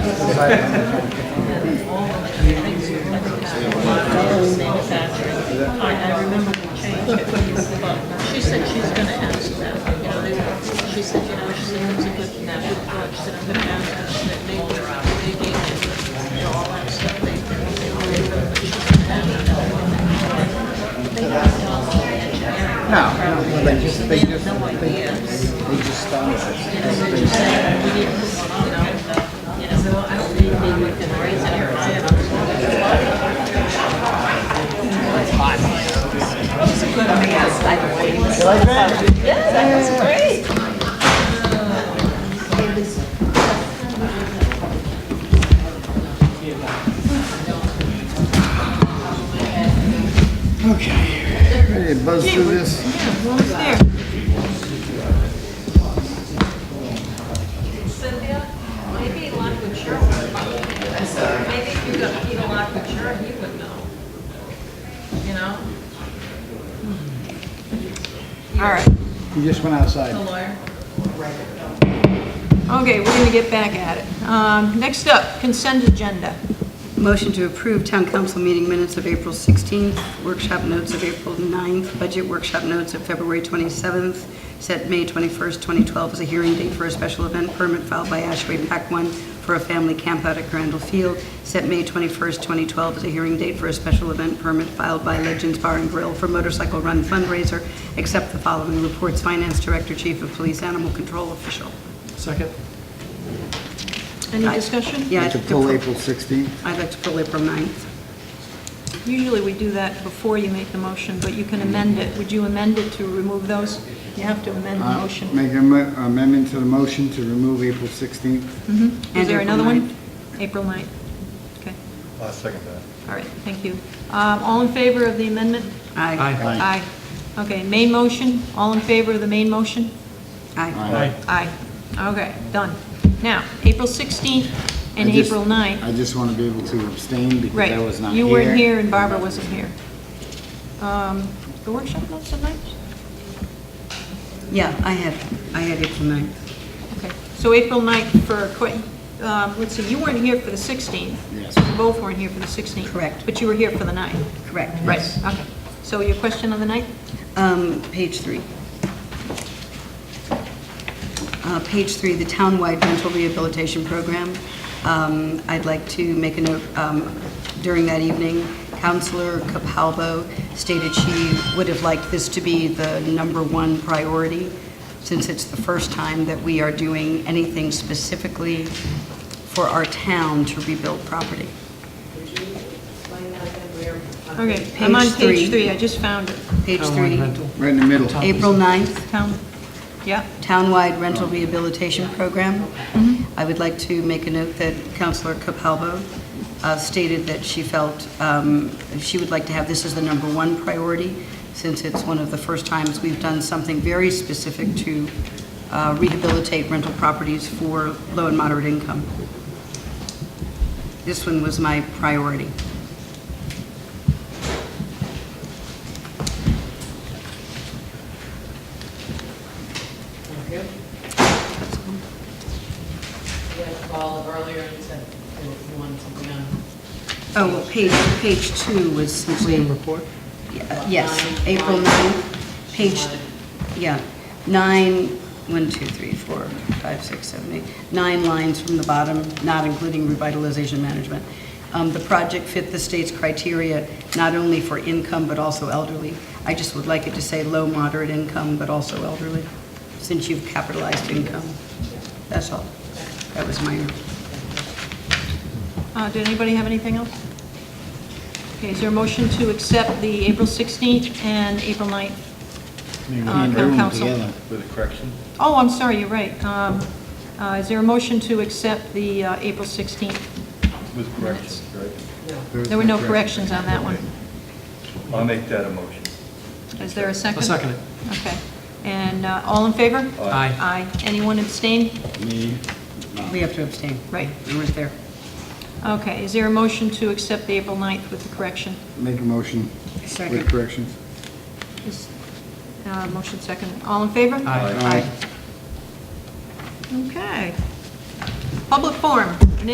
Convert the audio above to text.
I, I remember the change at least, but she said she's gonna ask them, you know, they, she said, you know, she said it's a good map, she said, I'm gonna ask them, she said, they were out digging and, you know, all that stuff, they, they were, they were, but she's gonna ask them. They don't know all the engineering. No, they just, they just, No they ideas. they just started. You know, they're just saying, we didn't, you know, you know, I don't think they would can raise it or buy it. Okay, ready to buzz through this? Cynthia, maybe Lockwood Sheriff would know. Maybe if you got Peter Lockwood Sheriff, he would know. You know? All right. You just went outside. The lawyer. Okay, we're going to get back at it. Um, Next up, consent agenda. Motion to approve town council meeting minutes of April 16th, workshop notes of April 9th, budget workshop notes of February 27th, set May 21st, 2012 as a hearing date for a special event permit filed by Ashway Pack 1 for a family campout at Crandall Field, set May 21st, 2012 as a hearing date for a special event permit filed by Legends Bar and Grill for motorcycle run fundraiser, except the following reports, Finance Director, Chief of Police, Animal Control Official. Second. Any discussion? Yeah, I'd To like to pull pull- April 16th. I'd like to pull April 9th. Usually we do that before you make the motion, but you can amend it. Would you amend it to remove those? You have to amend the Uh, motion. Make an am- amendment to the motion to remove April 16th. Mhm. Is And there April another one? 9th. April 9th. Okay, I'll second that. all right, thank you. Um, All in favor of the amendment? Aye. Aye. Aye. Okay, main motion, all in favor of the main motion? Aye. Aye. Aye. Okay, done. Now, April 16th and I just- April 9th. I just want to be able to abstain because I was not Right, here. you weren't here and Barbara wasn't here. Um, The workshop notes tonight? Yeah, I had, I had April 9th. Okay, so April 9th for, Qu- um, let's see, you weren't here for the 16th. Yes. You both weren't here for the 16th. Correct. But you were here for the 9th. Correct. Right, okay. So your question on the 9th? Um, Page three. Uh, Page three, the townwide mental rehabilitation program. Um, I'd like to make a note, um, during that evening, Counselor Capalbo stated she would have liked this to be the number one priority, since it's the first time that we are doing anything specifically for our town to rebuild property. Okay, I'm on page Page three. three, I just found it. Page Townwide three, rental. Right in the middle. April 9th. Town, yeah, townwide rental Oh. rehabilitation program. I would like to make a note that Counselor Capalbo uh, stated that she felt um, she would like to have this as the number one priority, since it's one of the first times we've done something very specific to uh, rehabilitate rental properties for low and moderate income. This one was my priority. We had a call earlier and said they were- wanted something on. Oh, well, page, page two was simply... Same report? Yeah, Yes, April 9th, page, yeah, nine, one, two, three, four, five, six, seven, eight, nine lines from the bottom, not including revitalization management. Um, The project fit the state's criteria, not only for income, but also elderly. I just would like it to say low, moderate income, but also elderly, since you've capitalized income. That's all. That was my, Uh, Did anybody have anything else? Okay, is there a motion to accept the April 16th and April 9th? You Uh, can do town them council. together. With a correction? Oh, I'm sorry, you're right. Um, uh, Is there a motion to accept the uh, April 16th? With corrections, right? There were no corrections on that one. I'll make that a motion. Is there a second? I'll second it. Okay. And uh, all in favor? Aye. Aye. Anyone abstain? Me, we have to abstain. Right. We weren't there. Okay, is there a motion to accept the April 9th with the correction? make a motion Second. with corrections. Is- uh, Motion second. All in favor? Aye. Okay. Public forum.